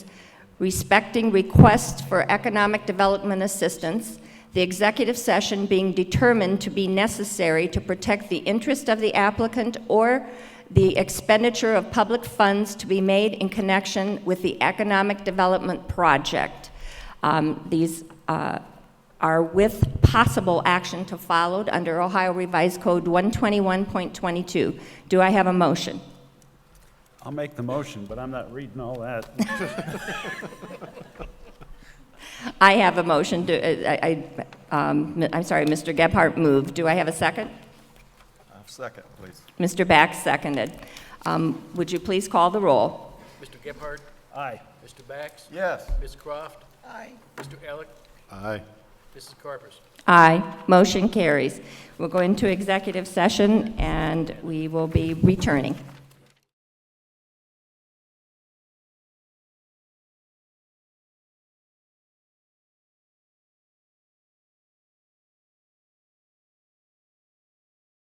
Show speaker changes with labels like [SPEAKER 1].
[SPEAKER 1] respecting requests for economic development assistance, the executive session being determined to be necessary to protect the interest of the applicant or the expenditure of public funds to be made in connection with the economic development project. Um, These uh, are with possible action to followed under Ohio Revised Code 121.22. Do I have a motion?
[SPEAKER 2] I'll make the motion, but I'm not reading all that.
[SPEAKER 1] I have a motion. Do- I, I, um, I'm sorry, Mr. Gebhardt moved. Do I have a second?
[SPEAKER 3] Second, please.
[SPEAKER 1] Mr. Bax seconded. Um, Would you please call the roll?
[SPEAKER 4] Mr. Gebhardt?
[SPEAKER 2] Aye.
[SPEAKER 4] Mr. Bax?
[SPEAKER 3] Yes.
[SPEAKER 4] Ms. Croft? Aye. Mr. Alec?
[SPEAKER 3] Aye.
[SPEAKER 4] Mrs. Carpus?
[SPEAKER 1] Aye. Motion carries. We'll go into executive session, and we will be returning.